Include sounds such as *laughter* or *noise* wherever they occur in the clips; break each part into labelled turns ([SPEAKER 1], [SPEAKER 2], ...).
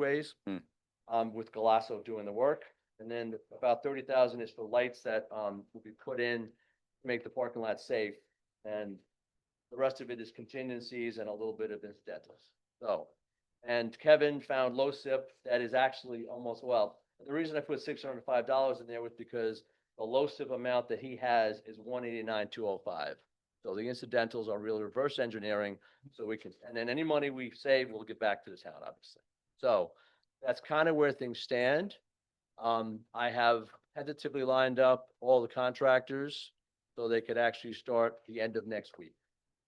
[SPEAKER 1] ways.
[SPEAKER 2] Hmm.
[SPEAKER 1] Um, with Galasso doing the work, and then about thirty thousand is for lights that, um, will be put in, to make the parking lot safe. And the rest of it is contingencies and a little bit of incidentals, so. And Kevin found low SIP that is actually almost, well, the reason I put six hundred and five dollars in there was because the low SIP amount that he has is one eighty-nine, two oh five. So the incidentals are really reverse engineering, so we can, and then any money we save, we'll get back to the town, obviously. So that's kind of where things stand. Um, I have tentatively lined up all the contractors so they could actually start the end of next week.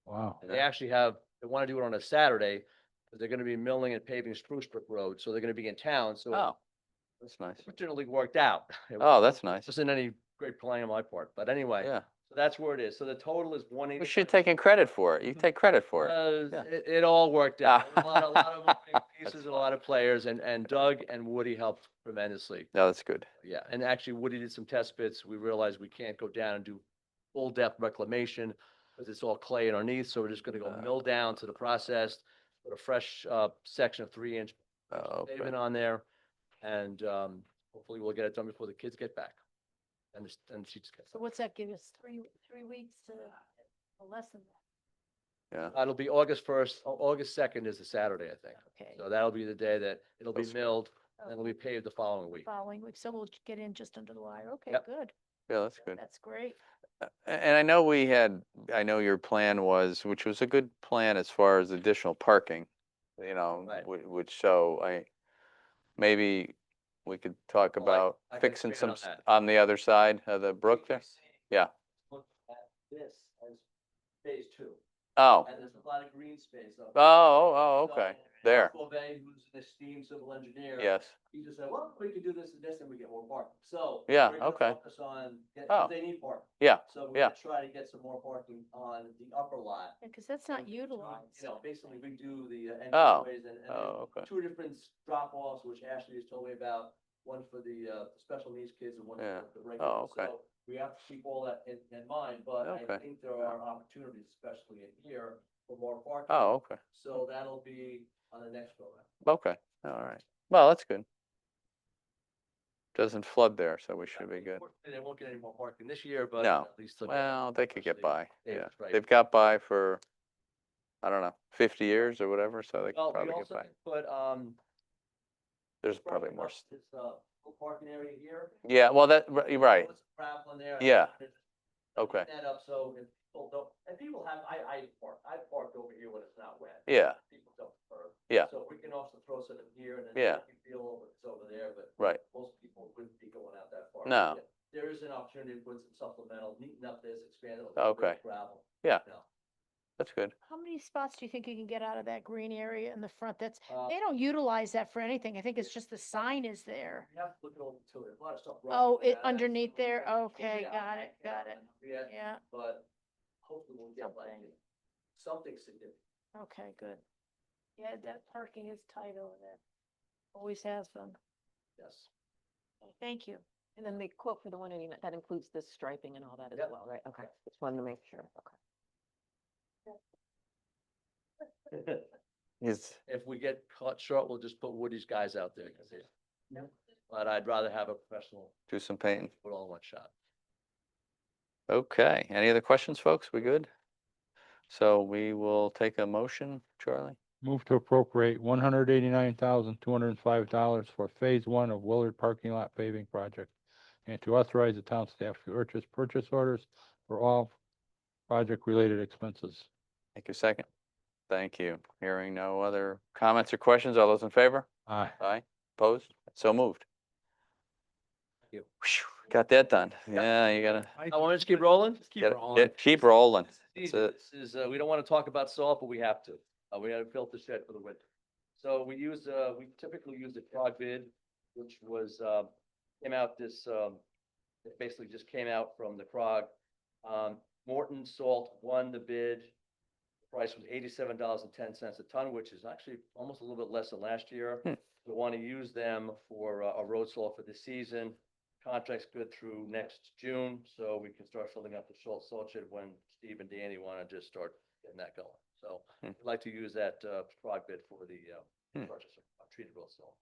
[SPEAKER 3] Wow.
[SPEAKER 1] And they actually have, they want to do it on a Saturday, but they're going to be milling and paving Spruce Brook Road, so they're going to be in town, so it
[SPEAKER 2] Oh, that's nice.
[SPEAKER 1] fortunately worked out. It
[SPEAKER 2] Oh, that's nice.
[SPEAKER 1] wasn't any great planning on my part, but anyway,
[SPEAKER 2] Yeah.
[SPEAKER 1] so that's where it is. So the total is one eighty.
[SPEAKER 2] We should take in credit for it. You take credit for it.
[SPEAKER 1] Mm-hmm. Uh,
[SPEAKER 2] Yeah.
[SPEAKER 1] it, it all worked
[SPEAKER 2] Ah. *laughs*
[SPEAKER 1] out. A lot, a lot of moving
[SPEAKER 2] That's
[SPEAKER 1] pieces, a lot of players, and, and Doug and Woody helped tremendously.
[SPEAKER 2] No, that's good.
[SPEAKER 1] Yeah, and actually Woody did some test bits. We realized we can't go down and do full depth reclamation because it's all clay underneath, so we're just gonna go
[SPEAKER 2] Uh,
[SPEAKER 1] mill down to the processed, put a fresh, uh, section of three inch
[SPEAKER 2] Oh, okay.
[SPEAKER 1] pavement on there. And, um, hopefully we'll get it done before the kids get back. And, the s- and she just gets,
[SPEAKER 4] So what's that give us, three, three weeks to, or less than that,
[SPEAKER 2] yeah.
[SPEAKER 1] Uh, it'll be August first, August second is a Saturday, I think.
[SPEAKER 4] okay?
[SPEAKER 1] So that'll be the day that it'll be
[SPEAKER 2] That's good.
[SPEAKER 1] milled and
[SPEAKER 4] Oh,
[SPEAKER 1] it'll be paved the following week.
[SPEAKER 4] Following week, so we'll j- get in just under the wire, okay,
[SPEAKER 1] Yep.
[SPEAKER 4] good,
[SPEAKER 2] Yeah, that's
[SPEAKER 1] *laughs*
[SPEAKER 2] good.
[SPEAKER 4] that's great.
[SPEAKER 2] Uh, a- And I know we had, I know your plan was, which was a good plan as far as additional parking, you know,
[SPEAKER 1] Right.
[SPEAKER 2] whi- which, so I, maybe we could talk
[SPEAKER 1] Well, Oh, I-
[SPEAKER 2] about
[SPEAKER 1] I can
[SPEAKER 2] fixing some,
[SPEAKER 1] expand on
[SPEAKER 2] s-
[SPEAKER 1] that.
[SPEAKER 2] on the other side of the
[SPEAKER 1] *laughs*
[SPEAKER 2] brook there? Yeah.
[SPEAKER 1] Look at this as phase two.
[SPEAKER 2] Oh,
[SPEAKER 1] And there's a lot of green space up.
[SPEAKER 2] oh, oh,
[SPEAKER 1] So,
[SPEAKER 2] okay. There.
[SPEAKER 1] Mark Bovee, who's an esteemed civil engineer.
[SPEAKER 2] Yes,
[SPEAKER 1] He just said, well, we could do this and this and we get more parking. So.
[SPEAKER 2] Yeah,
[SPEAKER 1] we're gonna
[SPEAKER 2] okay.
[SPEAKER 1] Focus on, get-
[SPEAKER 2] Oh.
[SPEAKER 1] 'cause they need parking.
[SPEAKER 2] Yeah,
[SPEAKER 1] So we're
[SPEAKER 2] yeah.
[SPEAKER 1] gonna try to get some more parking on the upper lot.
[SPEAKER 4] Because that's not
[SPEAKER 1] You know,
[SPEAKER 4] utilized.
[SPEAKER 1] You know, basically redo the uh,
[SPEAKER 2] Oh.
[SPEAKER 1] entryways and. and there's
[SPEAKER 2] oh, okay.
[SPEAKER 1] Two different s- drop-offs, which Ashley has told me about, one for the, uh, special needs kids and one
[SPEAKER 2] Yeah.
[SPEAKER 1] for the regular.
[SPEAKER 2] Oh, okay.
[SPEAKER 1] So We have to keep all that in, in mind, but I
[SPEAKER 2] Okay.
[SPEAKER 1] think there are opportunities, especially in here, for more parking.
[SPEAKER 2] Oh, okay.
[SPEAKER 1] So that'll be on the next go round.
[SPEAKER 2] Okay, all right. Well, that's good. Doesn't flood there, so we should be good.
[SPEAKER 1] Unfortunately, They won't get any more parking this year, but
[SPEAKER 2] No.
[SPEAKER 1] at least. they'll get-
[SPEAKER 2] Well, they could get
[SPEAKER 1] Actually,
[SPEAKER 2] by,
[SPEAKER 1] Dave
[SPEAKER 2] yeah.
[SPEAKER 1] was right.
[SPEAKER 2] They've got by for, I don't know, fifty years or whatever, so they could
[SPEAKER 1] Well, we
[SPEAKER 2] probably get
[SPEAKER 1] also
[SPEAKER 2] by.
[SPEAKER 1] can put, um.
[SPEAKER 2] There's
[SPEAKER 1] front
[SPEAKER 2] probably
[SPEAKER 1] of
[SPEAKER 2] more,
[SPEAKER 1] us
[SPEAKER 2] s-
[SPEAKER 1] This, uh, little parking area here.
[SPEAKER 2] yeah, well, that, r- you're right,
[SPEAKER 1] Put some gravel in there. and
[SPEAKER 2] Yeah.
[SPEAKER 1] put it-
[SPEAKER 2] okay,
[SPEAKER 1] That up, so if people don't, and people have, I, I park, I parked over here when it's not wet.
[SPEAKER 2] yeah,
[SPEAKER 1] People don't prefer.
[SPEAKER 2] Yeah.
[SPEAKER 1] So we can also throw some in here and then.
[SPEAKER 2] Yeah.
[SPEAKER 1] You feel over, it's over there, but
[SPEAKER 2] right,
[SPEAKER 1] most people wouldn't be going out that far.
[SPEAKER 2] No.
[SPEAKER 1] Yeah. There is an opportunity to put some supplemental, neaten up this, expand it. a little bit
[SPEAKER 2] Okay.
[SPEAKER 1] with Gravel.
[SPEAKER 2] Yeah.
[SPEAKER 1] you know.
[SPEAKER 2] that's good.
[SPEAKER 4] How many spots do you think you can get out of that green area in the front? That's,
[SPEAKER 1] Uh,
[SPEAKER 4] they don't utilize that for anything. I think it's just the sign is there.
[SPEAKER 1] We have to look at all the tillage, a lot of stuff.
[SPEAKER 4] Oh,
[SPEAKER 1] rough,
[SPEAKER 4] it
[SPEAKER 1] yeah,
[SPEAKER 4] underneath
[SPEAKER 1] that's-
[SPEAKER 4] there? Okay,
[SPEAKER 1] Yeah,
[SPEAKER 4] got
[SPEAKER 1] I
[SPEAKER 4] it,
[SPEAKER 1] can't
[SPEAKER 4] got it.
[SPEAKER 1] remember yet,
[SPEAKER 4] Yeah,
[SPEAKER 1] But hopefully we'll get like
[SPEAKER 4] Something.
[SPEAKER 1] something significant.
[SPEAKER 4] okay, good. Yeah, that parking is tight over there. Always has been.
[SPEAKER 1] Yes.
[SPEAKER 4] Thank you.
[SPEAKER 5] And then the quote for the one eighty-nine, that includes the striping and all that as
[SPEAKER 1] Yep.
[SPEAKER 5] well, right? Okay,
[SPEAKER 1] Yep.
[SPEAKER 5] just wanted to make sure, okay.
[SPEAKER 2] It's,
[SPEAKER 1] If we get caught short, we'll just put Woody's guys out there. 'cause they- But I'd rather have a professional
[SPEAKER 2] do some painting.
[SPEAKER 1] put all in one shot.
[SPEAKER 2] Okay, any other questions, folks? We good? So we will take a motion, Charlie?
[SPEAKER 3] Move to appropriate one hundred eighty-nine thousand, two hundred and five dollars for phase one of Willard Parking Lot paving project. And to authorize the town staff to purchase purchase orders for all project-related expenses.
[SPEAKER 2] Take a second. Thank you. Hearing no other comments or questions, all those in favor?
[SPEAKER 3] Aye.
[SPEAKER 2] Aye, opposed, so moved.
[SPEAKER 1] you.
[SPEAKER 2] Phew, Got that done. Yeah, you gotta
[SPEAKER 1] I want to just keep rolling.
[SPEAKER 2] get- get- keep rolling.
[SPEAKER 1] This is, easy.
[SPEAKER 2] it.
[SPEAKER 1] This is, uh, we don't want to talk about salt, but we have to. Uh, we gotta filter shed for the winter. So we use, uh, we typically use a prog bid, which was, uh, came out this, um, it basically just came out from the prog. Um, Morton Salt won the bid. Price was eighty-seven dollars and ten cents a ton, which is actually almost a little bit less than last year.
[SPEAKER 2] Hmm.
[SPEAKER 1] We want to use them for, uh, a road salt for this season. Contract's good through next June, so we can start filling up the salt, salt shed when Steve and Danny want to just start getting that going. So
[SPEAKER 2] Hmm.
[SPEAKER 1] I'd like to use that, uh, prog bid for the, uh,
[SPEAKER 2] Hmm.
[SPEAKER 1] purchase. of- treated real slow.